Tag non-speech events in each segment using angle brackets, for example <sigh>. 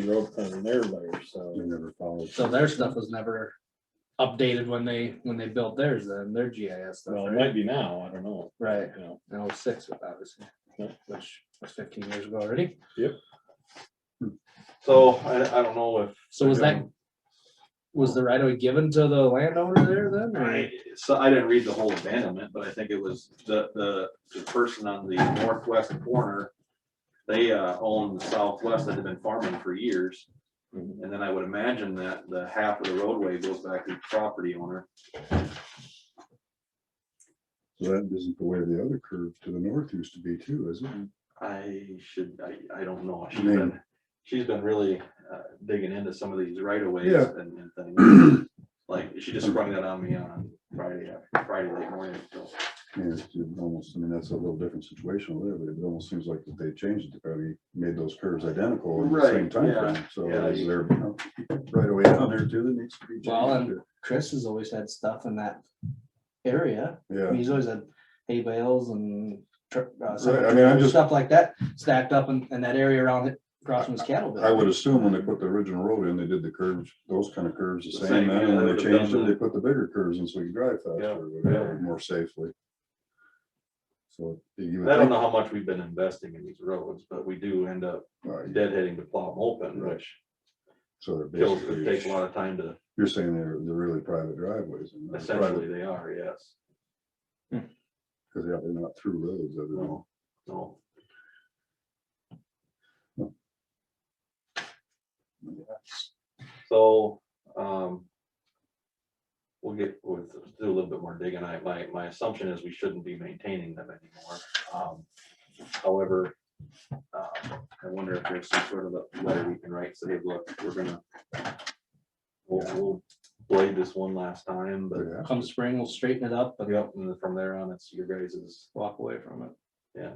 road in their layer, so. They never followed. So their stuff was never updated when they, when they built theirs then, their GIS stuff, Well, it right? might be now, I don't know, Right, you know, in oh-six, obviously, Yeah. which was fifteen years ago already. So I, I don't know if. So was that, was the right of way given to the landowner there then? or- I, so I didn't read the whole abandonment, but I think it was the, the, the person on the northwest corner. They, uh, own the southwest that had been farming for years. Mhm. And then I would imagine that the half of the roadway goes back to the property owner. So that isn't the way the other curve to the north used to be too, is it? I should, I, I don't know. She's Maybe. been, she's been really uh, digging into some of these right of ways Yeah. and, and things. Like, she just sprung that on me on Friday, after- Friday late morning. so. Yeah, it's it's almost, I mean, that's a little different situation there, but it almost seems like that they changed it, probably made those curves identical in the same Right, yeah, timeframe. So yeah. is there, you know, right away down there too, that needs to be Well, and- changed. Chris has always had stuff in that area. Yeah, He's always had hay bales and tr- uh, some Right, I mean, I'm just- stuff like that stacked up in, in that area around it, across from his cattle. I bit. would assume when they put the original road in, they did the curves, those kind of curves the The same, same, yeah, and they when they would've changed done it, they put the bigger curves in so you could drive faster, Yeah, or whatever, more safely. So. you would I don't think- know how much we've been investing in these roads, but we do end up all right, deadheading to plow them open, which uh, So they're kills, it takes a basically, lot of time to, you're saying they're, they're really private driveways. and not private essentially they are, yes. Cause yeah, they're not through roads, I don't know. So, so, um, we'll get, we'll do a little bit more digging. I, my, my assumption is we shouldn't be maintaining them anymore. Um, However, uh, I wonder if there's some sort of a letter we can write, say, look, we're gonna, we'll, we'll blade this one last time, but, But Come spring, we'll straighten it up and Yep, and then from there on, it's your guys's, walk away from it. yeah.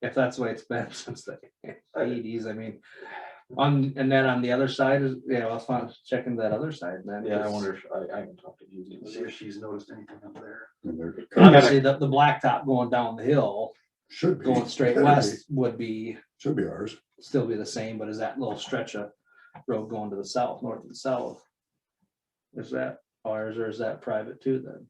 If that's the way it's been <laughs> since the eighties, I mean. On, and then on the other side is, yeah, I was fin- checking that other side then. Yeah, I 'cause wonder if, I, I can talk to Susie and see if she's noticed anything up there. and they're- Obviously, the, the blacktop going down the hill, Should be. <laughs> going straight Better be. west would be, Should be ours. still be the same, but is that little stretch of road going to the south, north and south? Is that ours or is that private too then?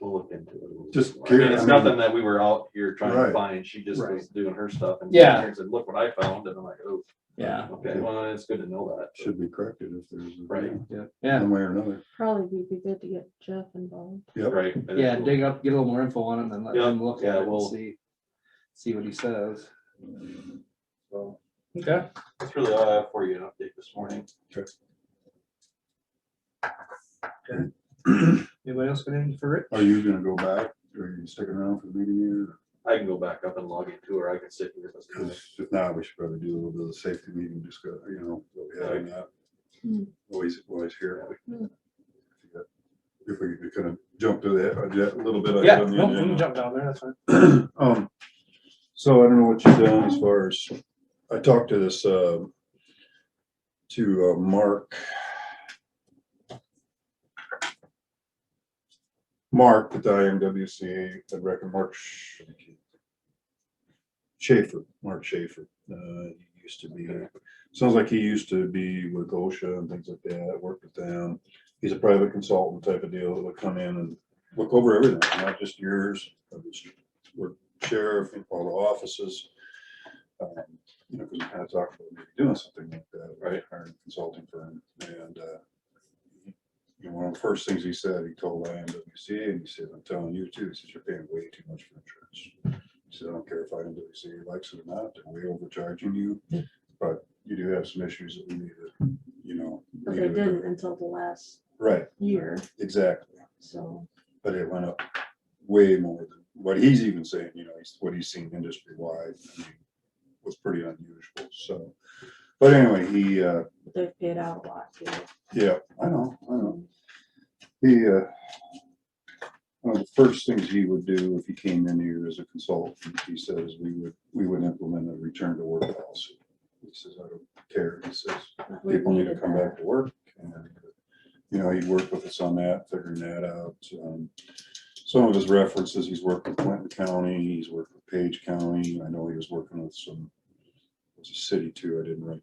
We'll look into it. a little bit Just more. I mean, curious, It's I mean- nothing that we were out here trying Right. to find. She just was doing her stuff and. Yeah. And said, look what I found. And I'm like, oh, Yeah. okay, well, it's good to know that. Should be corrected if there's. a- Right. Yeah, yeah, One way or another. Probably be good to get Jeff involved. Yep. Right. and yeah, it's- dig up, get a little more info on it and then let Yeah, him look yeah, at it and we'll- Mm. see, see what he says. so Okay. That's really all I have for you, an update this morning. Anybody else got anything for Rick? Are you gonna go back? Or Are you sticking around for the meeting here? I can go back up and log into her. I can sit here. That's good. Cause if not, we should probably do a little bit of the safety meeting, just go, you know, what we had on that. Hmm. Always, always here. Hmm. If we could kind of jump to that, uh, ju- a little bit. Yeah, on the uh, no, we can agenda. jump down there, that's fine. <clears throat> Um, so I don't know what you've done as far as, I talked to this, uh, to uh, Mark. Mark at the IMWCA, I reckon Mark Sch- Schaefer, Mark Schaefer, uh, he used to be, sounds like he used to be with OSHA and things like that, worked with them. He's a private consultant type of deal that would come in and look over everything, not just yours, but just sheriff, and all the offices. um, You know, because we kind of talked about maybe doing something like that. Right. Hiring a consulting firm and, uh, you know, one of the first things he said, he told IMWCA and he said, I'm telling you too, he says, you're paying way too much for insurance. He said, I don't care if IMWCA likes it or not, they're way overcharging you, but you do have some issues that we need to, you know. But need they to- didn't until the last Right, year, exactly so. but it went up way more than what he's even saying, you know, he's- what he's seen industry wide was pretty unusual, so. But anyway, he, uh, but They've paid out a lot too. yeah, I know, I know. He, uh, one of the first things he would do if he came in here as a consultant, he says, we would, we would implement a return to work policy. He says, I don't care, he says, We've people need to needed come that. back to work. and You know, he worked with us on that, figuring that out. Um, Some of his references, he's worked with Clinton County, he's worked with Page County. I know he was working with some, with it's a city too, I didn't write